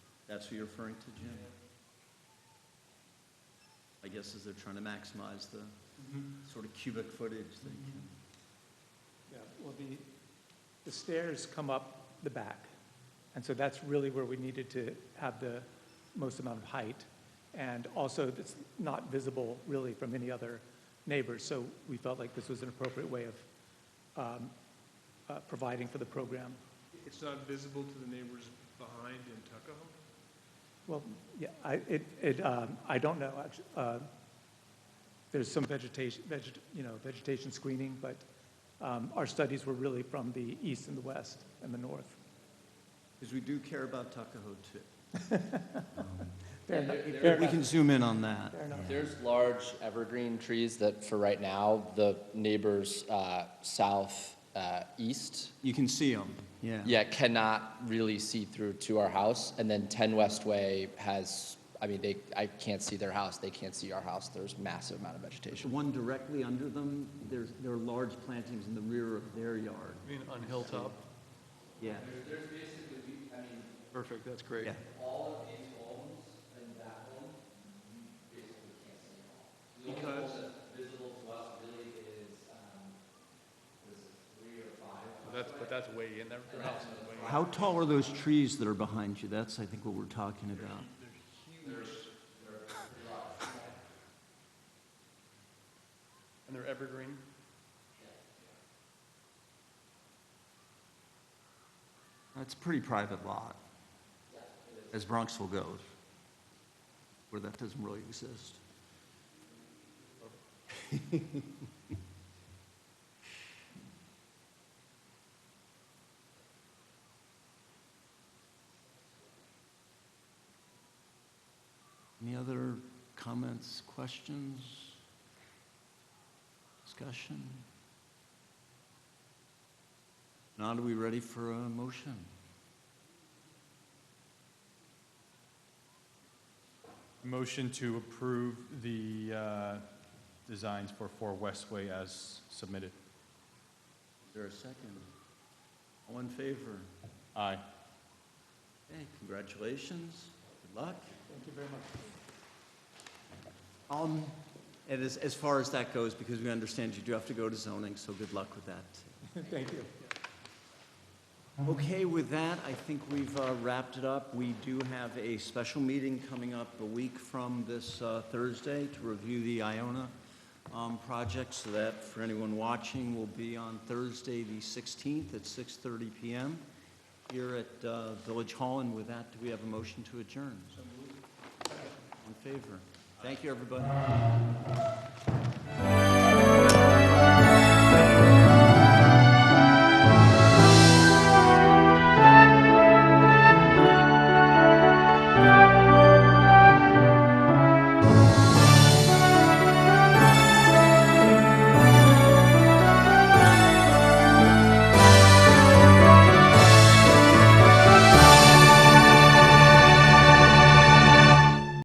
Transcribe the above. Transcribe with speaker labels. Speaker 1: That's who you're referring to, Jim? I guess as they're trying to maximize the
Speaker 2: Mm-hmm.
Speaker 1: sort of cubic footage they can.
Speaker 3: Yeah, well, the, the stairs come up the back, and so that's really where we needed to have the most amount of height. And also, it's not visible really from any other neighbors, so we felt like this was an appropriate way of um, uh, providing for the program.
Speaker 2: It's not visible to the neighbors behind in Tuckahoe?
Speaker 3: Well, yeah, I, it, it, um, I don't know, actu- uh, there's some vegetation, veget, you know, vegetation screening, but, um, our studies were really from the east and the west and the north.
Speaker 1: Because we do care about Tuckahoe too.
Speaker 3: Fair
Speaker 4: Yeah,
Speaker 3: enough, fair
Speaker 4: there-
Speaker 1: But We
Speaker 3: enough,
Speaker 1: can zoom in on that.
Speaker 3: fair enough.
Speaker 4: There's large evergreen trees that, for right now, the neighbors uh, south, uh, east,
Speaker 1: You can see them, yeah.
Speaker 4: yeah, cannot really see through to our house. And then 10 West Way has, I mean, they, I can't see their house, they can't see our house. There's massive amount of
Speaker 5: The
Speaker 4: vegetation.
Speaker 5: one directly under them, there's, there are large plantings in the rear of their yard.
Speaker 6: I mean, on Hilltop?
Speaker 5: Yeah.
Speaker 4: There's basically, I mean,
Speaker 6: Perfect, that's great.
Speaker 1: Yeah.
Speaker 4: all of these homes and that one, basically can't see at all.
Speaker 2: only home
Speaker 4: visible to us really is, um, three or five
Speaker 6: That's, but that's way in there.
Speaker 5: How tall are those trees that are behind you? That's, I think, what we're talking about.
Speaker 6: And they're evergreen?
Speaker 1: That's a pretty private lot, as Bronxville goes, where that doesn't really exist. Any other comments, questions, discussion? Now, are we ready for a motion?
Speaker 7: Motion to approve the uh, designs for 4 Westway as submitted.
Speaker 1: Is there a second? All in favor?
Speaker 7: Aye.
Speaker 1: Okay, congratulations, good luck.
Speaker 3: Thank you very much.
Speaker 1: Um, and as, as far as that goes, because we understand you do have to go to zoning, so good luck with that.
Speaker 3: Thank you.
Speaker 1: Okay, with that, I think we've uh, wrapped it up. We do have a special meeting coming up a week from this uh, Thursday to review the Iona um, project, so that, for anyone watching, will be on Thursday, the 16th, at 6:30 PM here at uh, Village Hall, and with that, do we have a motion to adjourn? In favor? Thank you, everybody.